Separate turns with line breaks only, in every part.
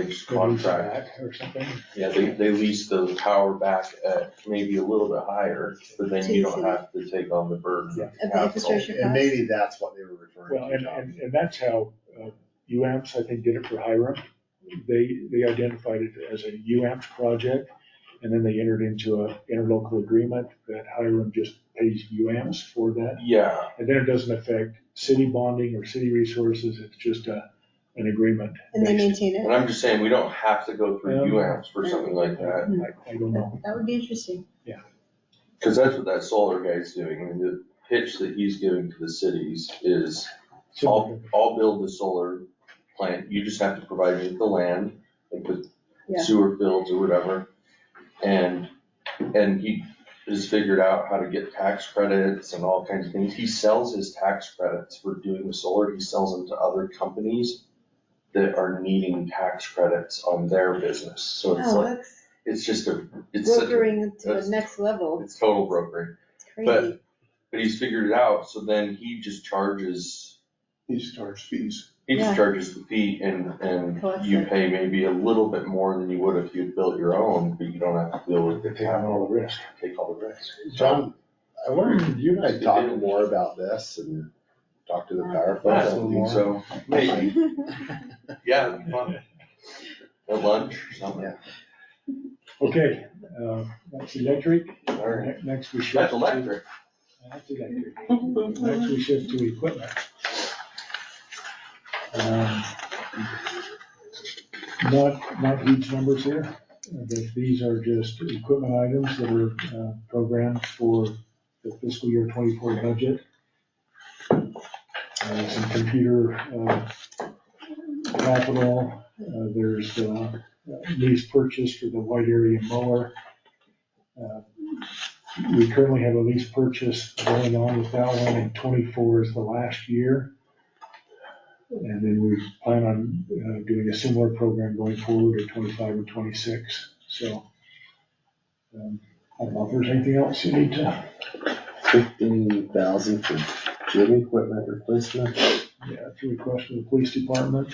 year's contract.
Or something.
Yeah, they, they lease the power back at maybe a little bit higher, but then you don't have to take on the burden of
Of the
capital.
infrastructure
Oh, And
costs.
maybe that's what they were referring
Well,
to,
and,
John.
and, and that's how, uh, UAMPS, I think, did it for Hiram. They, they identified it as a UAMPS project, and then they entered into a interlocal agreement that Hiram just pays UAMPS for that.
Yeah,
And then it doesn't affect city bonding or city resources, it's just a, an agreement.
And they
based-
maintain
and
it.
I'm just saying, we don't have to go through
Um,
UAMs for something like that,
I I don't know.
That would be interesting.
cause that's what that solar guy's doing, and the pitch that he's giving to the cities is, I'll, I'll build the solar plant, you just have to provide me with the land, like with
Yeah.
sewer fields or whatever. And, and he has figured out how to get tax credits and all kinds of things. He sells his tax credits for doing the solar, he sells them to other companies that are needing tax credits on their business, so it's
Oh,
like,
that's
it's just a, it's such a,
brokering to the
that's-
next level.
it's total brokering.
It's
but-
crazy.
But he's figured it out, so then he just charges. He just
Yeah.
charges fees. He just charges the fee and, and
Collects
you
it.
pay maybe a little bit more than you would if you built your own, but you don't have to deal with the
They have
capital,
all the risk.
take all the risk.
John, I wonder, could you and I talk more about this and talk to the power
I
plant?
don't think so, maybe, yeah, it'd be fun. At lunch or something.
Yeah.
Okay, uh, that's electric.
All right.
Ne- Next we shift.
That's
to-
electric.
That's electric. Next we shift to equipment. Um, Not, not huge numbers here, uh, but these are just equipment items that are uh, programmed for the fiscal year twenty-four budget. Uh, Some computer uh, capital, uh, there's uh, lease purchase for the wide area mower. Uh, we currently have a lease purchase going on with that one, and twenty-four is the last year. And then we plan on uh, doing a similar program going forward at twenty-five and twenty-six, so. um, I don't know if there's anything else you need to,
Fifteen thousand for gym equipment replacement.
yeah, to request from the police department.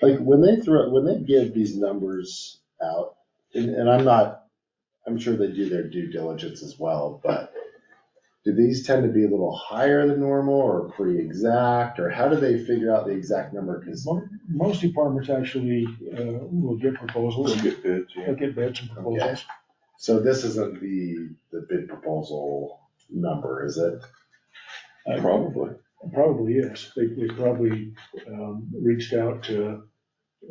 Like, when they throw, when they give these numbers out, and, and I'm not, I'm sure they do their due diligence as well, but do these tend to be a little higher than normal or pretty exact, or how do they figure out the exact number? Cause
Mo- Most departments actually uh, will get proposals,
get bids,
they'll get bids and proposals.
So this isn't the, the bid proposal number, is it?
Uh,
Probably.
Probably is. They, they probably, um, reached out to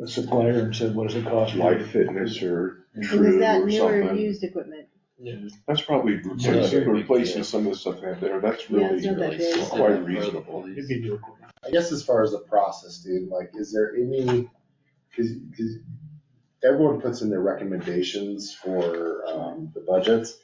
a supplier and said, what does it cost? Life Fitness or.
And is that newer used equipment?
That's probably
Yeah.
replacing, replacing some of the stuff they have there, that's
Yeah, it's
really
not that big.
quite reasonable.
It'd be new equipment.
I guess as far as the process, dude, like, is there any, cause, 'cause everyone puts in their recommendations for, um, the budgets.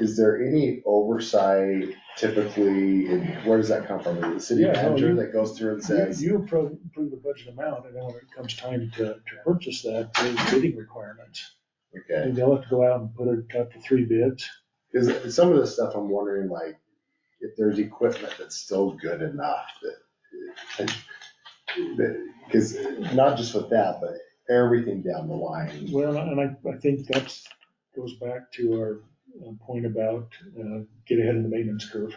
Is there any oversight typically, and where does that come from? Is it the city
Yeah, no,
manager
you-
that goes through and
You-
says,
You approve, approve the budget amount, and then when it comes time to, to purchase that, there's bidding requirements.
okay?
And they'll have to go out and put it up to three bids.
Cause some of the stuff I'm wondering, like, if there's equipment that's still good enough that, that, cause not just with that, but everything down the line.
Well, and I, I think that's, goes back to our uh, point about, uh, get ahead of the maintenance curve.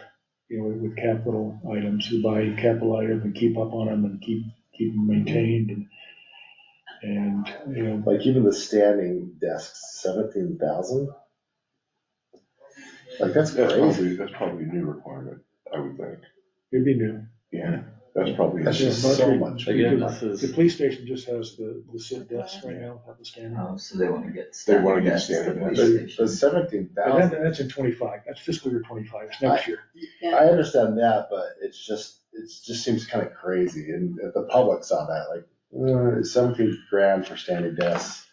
You know, with capital items, you buy capital items and keep up on them and keep, keep them maintained and, and, you know,
Like even the standing desks, seventeen thousand? Like, that's
That's
crazy.
probably, that's probably a new requirement, I would think,
it'd be new.
yeah, that's probably.
That's just so much.
Again,
Because
this is.
The police station just has the, the sit desks right now, have the standing.
Oh, so they wanna get.
They wanna get
standing
standing
desks,
desks.
But
the police
but
station.
seventeen
But that,
thousand,
that's in twenty-five, that's fiscal year twenty-five, it's next year.
I understand that, but it's just, it's just seems kind of crazy. And if the public saw that, like, uh, seventeen grand for standing desks.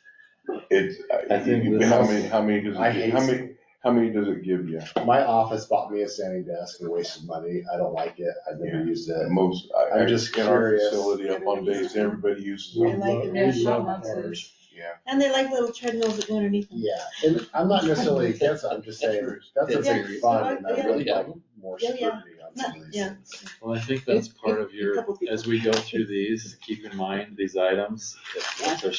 It's,
I think this
how
is-
many, how many does
I
it,
hate
how many, how many does it give you?
My office bought me a standing desk and wasted money. I don't like it. I've never used it.
Most,
I'm
I, I
just
just get our
curious.
facility up on days, everybody uses
We
I
them,
like
love-
it.
we
There's
so
love
much to-
ours.
yeah.
And they like little treadmills that go underneath them.
Yeah, and I'm not necessarily against it. I'm just saying, that's a big fund and I would like more
Yeah, yeah.
scrutiny on some of these
Yeah.
things.
Well, I think that's part of your,
Couple people.
as we go through these, keep in mind these items, if if there's